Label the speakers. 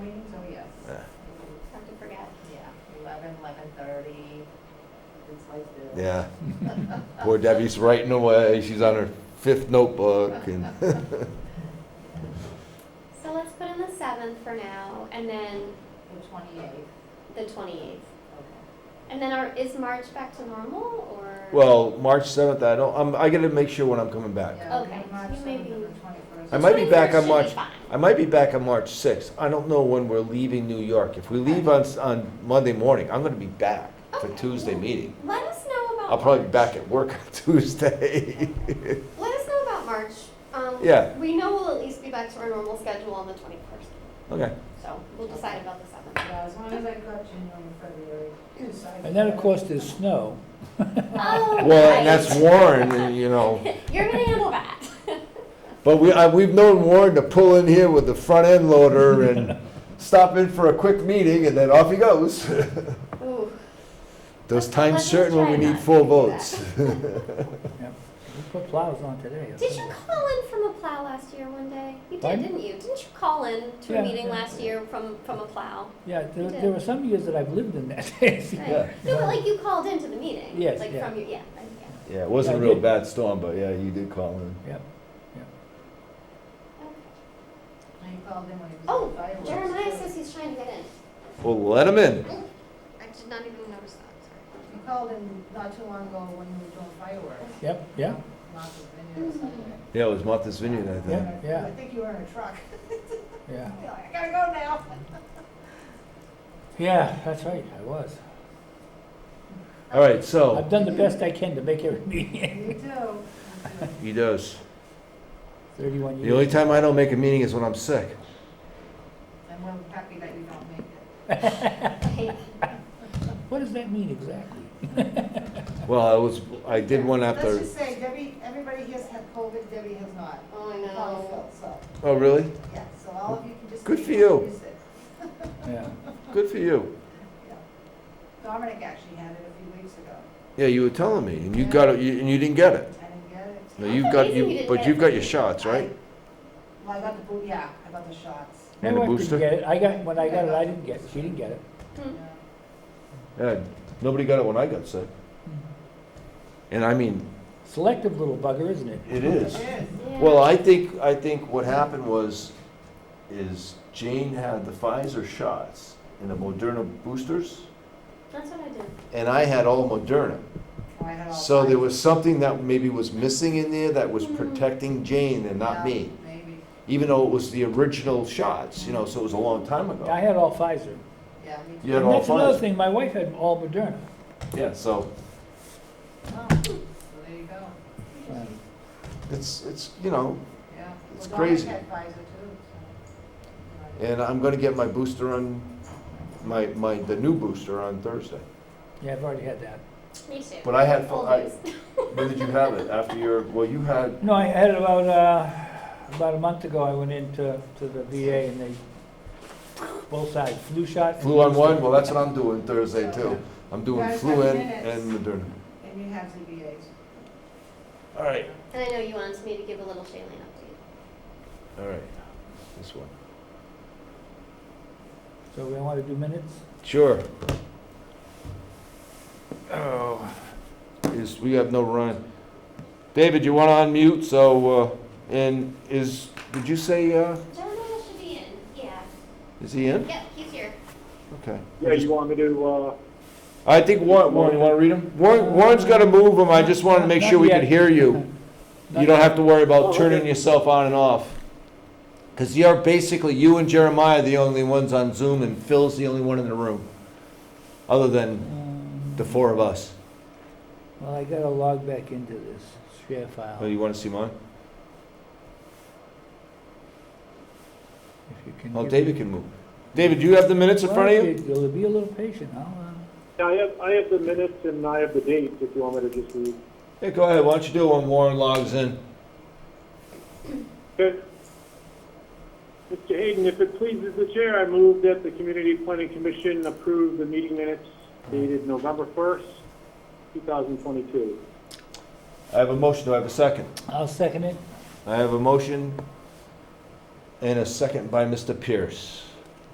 Speaker 1: Oh, eleven thirty, it's like this.
Speaker 2: Yeah. Poor Debbie's writing away. She's on her fifth notebook and
Speaker 3: So let's put in the seventh for now, and then
Speaker 1: The twenty-eighth,
Speaker 3: the twenty-eighth.
Speaker 1: okay.
Speaker 3: And then are, is March back to normal, or?
Speaker 2: well, March seventh. I don't. I'm, I gotta make sure when I'm coming back.
Speaker 1: Yeah,
Speaker 3: Okay,
Speaker 1: March
Speaker 3: you may
Speaker 1: 7th
Speaker 3: be-
Speaker 1: and the 21st.
Speaker 2: I might be back on
Speaker 3: 21st should
Speaker 2: March.
Speaker 3: fine.
Speaker 2: I might be back on March sixth. I don't know when we're leaving New York. If we leave on s- on Monday morning, I'm gonna be back for
Speaker 3: Okay.
Speaker 2: Tuesday meeting.
Speaker 3: Let us know about.
Speaker 2: I'll probably be
Speaker 3: March.
Speaker 2: back at work on Tuesday.
Speaker 3: Let us know about March. Um,
Speaker 2: Yeah.
Speaker 3: We know we'll at least be back to our normal schedule on the twenty-first,
Speaker 2: okay.
Speaker 3: so we'll decide about the seventh.
Speaker 1: Yeah, as long as I've got January and February. decided.
Speaker 4: And then, of course, there's snow.
Speaker 3: Oh,
Speaker 2: Well,
Speaker 3: right.
Speaker 2: and that's Warren, and, you know.
Speaker 3: You're gonna handle that.
Speaker 2: But we, I, we've known Warren to pull in here with the front end loader and stop in for a quick meeting, and then off he goes.
Speaker 3: Ooh.
Speaker 2: Those
Speaker 3: Let's-
Speaker 2: times
Speaker 3: let's
Speaker 2: certain when
Speaker 3: try
Speaker 2: we
Speaker 3: not
Speaker 2: need
Speaker 3: to
Speaker 2: full
Speaker 3: do
Speaker 2: votes.
Speaker 4: We put plows on today.
Speaker 3: Did you call in from a plow last year one day? You did,
Speaker 4: Pardon?
Speaker 3: didn't you? Didn't you call in to a
Speaker 4: Yeah.
Speaker 3: meeting last year from, from a plow?
Speaker 4: Yeah, there,
Speaker 3: You did.
Speaker 4: there were some years that I've lived in that. Yeah.
Speaker 3: Right. No, but like you called into the meeting.
Speaker 4: Yes,
Speaker 3: Like
Speaker 4: yeah.
Speaker 3: from your, yeah, right, yeah.
Speaker 2: Yeah, it wasn't a
Speaker 4: I
Speaker 2: real
Speaker 4: did.
Speaker 2: bad storm, but yeah, you did call in.
Speaker 4: Yep.
Speaker 3: Okay.
Speaker 1: I called him when he was.
Speaker 3: Oh,
Speaker 1: at fireworks.
Speaker 3: Jeremiah says he's trying to get in.
Speaker 2: Well, let him in.
Speaker 3: I did not even notice that,
Speaker 1: You called him not too long ago when you were doing fireworks.
Speaker 4: Yep, yeah.
Speaker 1: Lots of videos
Speaker 3: Mm-hmm.
Speaker 1: like that.
Speaker 2: Yeah, it was Martha's Vineyard, I think.
Speaker 4: Yeah, yeah.
Speaker 1: I think you were in a truck.
Speaker 4: Yeah,
Speaker 1: You're like, I gotta go now.
Speaker 4: yeah, that's right, I was.
Speaker 2: All right, so
Speaker 4: I've done the best I can to make every meeting,
Speaker 1: You do. You do.
Speaker 2: he does.
Speaker 4: thirty-one
Speaker 2: The only
Speaker 4: years.
Speaker 2: time I don't make a meeting is when I'm sick.
Speaker 1: I'm well happy that you don't make it.
Speaker 3: sorry.
Speaker 4: What does that mean exactly?
Speaker 2: Well, I was, I did one
Speaker 1: Let's
Speaker 2: after.
Speaker 1: just say Debbie, everybody here's had COVID, Debbie has not.
Speaker 3: Oh, I
Speaker 1: Probably
Speaker 3: know.
Speaker 1: felt So,
Speaker 2: Oh, really?
Speaker 1: yeah, so all of you can just.
Speaker 2: Good
Speaker 1: take
Speaker 2: for
Speaker 1: it
Speaker 2: you.
Speaker 1: and use it.
Speaker 4: Yeah,
Speaker 2: Good for you.
Speaker 1: Yeah. Dominic actually had it a few weeks ago.
Speaker 2: Yeah, you were telling me, and you got it, you- and you didn't get it.
Speaker 1: I didn't get it.
Speaker 2: No,
Speaker 3: That's
Speaker 2: you've got
Speaker 3: amazing you
Speaker 2: you,
Speaker 3: didn't
Speaker 2: but
Speaker 3: get
Speaker 2: you've
Speaker 3: it.
Speaker 2: got your shots, right?
Speaker 1: I- Well, I got the boot, yeah, I got the shots.
Speaker 4: My
Speaker 2: And a
Speaker 4: wife didn't
Speaker 2: booster?
Speaker 4: get it. Oh, I got, when I got it, I didn't get it, she didn't get it.
Speaker 3: Hmm.
Speaker 1: Yeah.
Speaker 2: Yeah, nobody got it when I got sick. And I mean,
Speaker 4: Selective little bugger, isn't it?
Speaker 2: it is.
Speaker 1: It is.
Speaker 3: Yeah.
Speaker 2: Well, I think, I think what happened was, is Jane had the Pfizer shots and the Moderna boosters,
Speaker 3: That's what I did.
Speaker 2: and I had all Moderna.
Speaker 1: Oh, I had all
Speaker 2: So there
Speaker 1: five.
Speaker 2: was something that maybe was missing in there that was
Speaker 3: Mhm.
Speaker 2: protecting Jane and not
Speaker 1: Mm-hmm. Yeah,
Speaker 2: me,
Speaker 1: Maybe,
Speaker 2: even though it was the original shots, you know, so it was a long time
Speaker 4: I
Speaker 2: ago.
Speaker 4: had all Pfizer.
Speaker 1: yeah, me too.
Speaker 2: Oh. You had
Speaker 4: And
Speaker 2: all
Speaker 4: that's another
Speaker 2: Pfizer.
Speaker 4: thing, my wife had all Moderna.
Speaker 2: Yeah, so
Speaker 1: Oh, So there you go,
Speaker 4: Yeah.
Speaker 2: it's, it's, you know,
Speaker 1: yeah.
Speaker 2: It's
Speaker 1: Well, Dominic
Speaker 2: crazy.
Speaker 1: had Pfizer too, so.
Speaker 2: and I'm gonna get my booster on, my, my, the new booster on Thursday.
Speaker 4: Yeah, I've already had that.
Speaker 3: Me too.
Speaker 2: But I had,
Speaker 3: Old
Speaker 2: I,
Speaker 3: news.
Speaker 2: when did you have it? After your, well, you had
Speaker 4: No, I had it about, uh, about a month ago, I went into, to the VA and they, both sides, flu shot. and
Speaker 2: Flu on
Speaker 4: booster.
Speaker 2: one, well, that's what I'm doing Thursday too. I'm doing
Speaker 1: Guys,
Speaker 2: flu
Speaker 1: have
Speaker 2: in
Speaker 1: minutes.
Speaker 2: and Moderna.
Speaker 1: And you have ZBAs.
Speaker 2: All right.
Speaker 3: And I know you wanted me to give a little Shailene update.
Speaker 2: All right, this one.
Speaker 4: So we want to do minutes?
Speaker 2: Sure,
Speaker 4: Oh.
Speaker 2: is, we have no run. David, you wanna unmute, so, uh, and is, did you say, uh,
Speaker 3: Jeremiah should be in, yeah.
Speaker 2: is he in?
Speaker 3: Yep, he's here.
Speaker 2: Okay.
Speaker 5: Yeah, you want me to, uh,
Speaker 2: I think Warren, Warren, you wanna read him? Warren, Warren's gotta move him, I just wanted to make sure we could hear you. You don't have to worry about turning yourself on and off. Because you're basically, you and Jeremiah are the only ones on Zoom, and Phil's the only one in the room, other than the four of us.
Speaker 4: Um, Well, I gotta log back into this share file,
Speaker 2: Oh,
Speaker 4: if
Speaker 2: you want to see mine?
Speaker 4: you can.
Speaker 2: Oh,
Speaker 4: give
Speaker 2: David
Speaker 4: me-
Speaker 2: can move. David, do you have the minutes in front of
Speaker 4: Well,
Speaker 2: you?
Speaker 4: if you'll Be a little patient, I'll, uh,
Speaker 5: I have, I have the minutes and I have the dates if you want me to just read.
Speaker 2: Yeah, go ahead. Why don't you do it when Warren logs in?
Speaker 5: Okay. Mr. Hayden, if it pleases the chair, I move that the Community Planning Commission approve the meeting minutes dated November 1st, 2022.
Speaker 2: I have a motion. Do I have a second?
Speaker 4: I'll second it.
Speaker 2: I have a motion and a second by Mr. Pierce.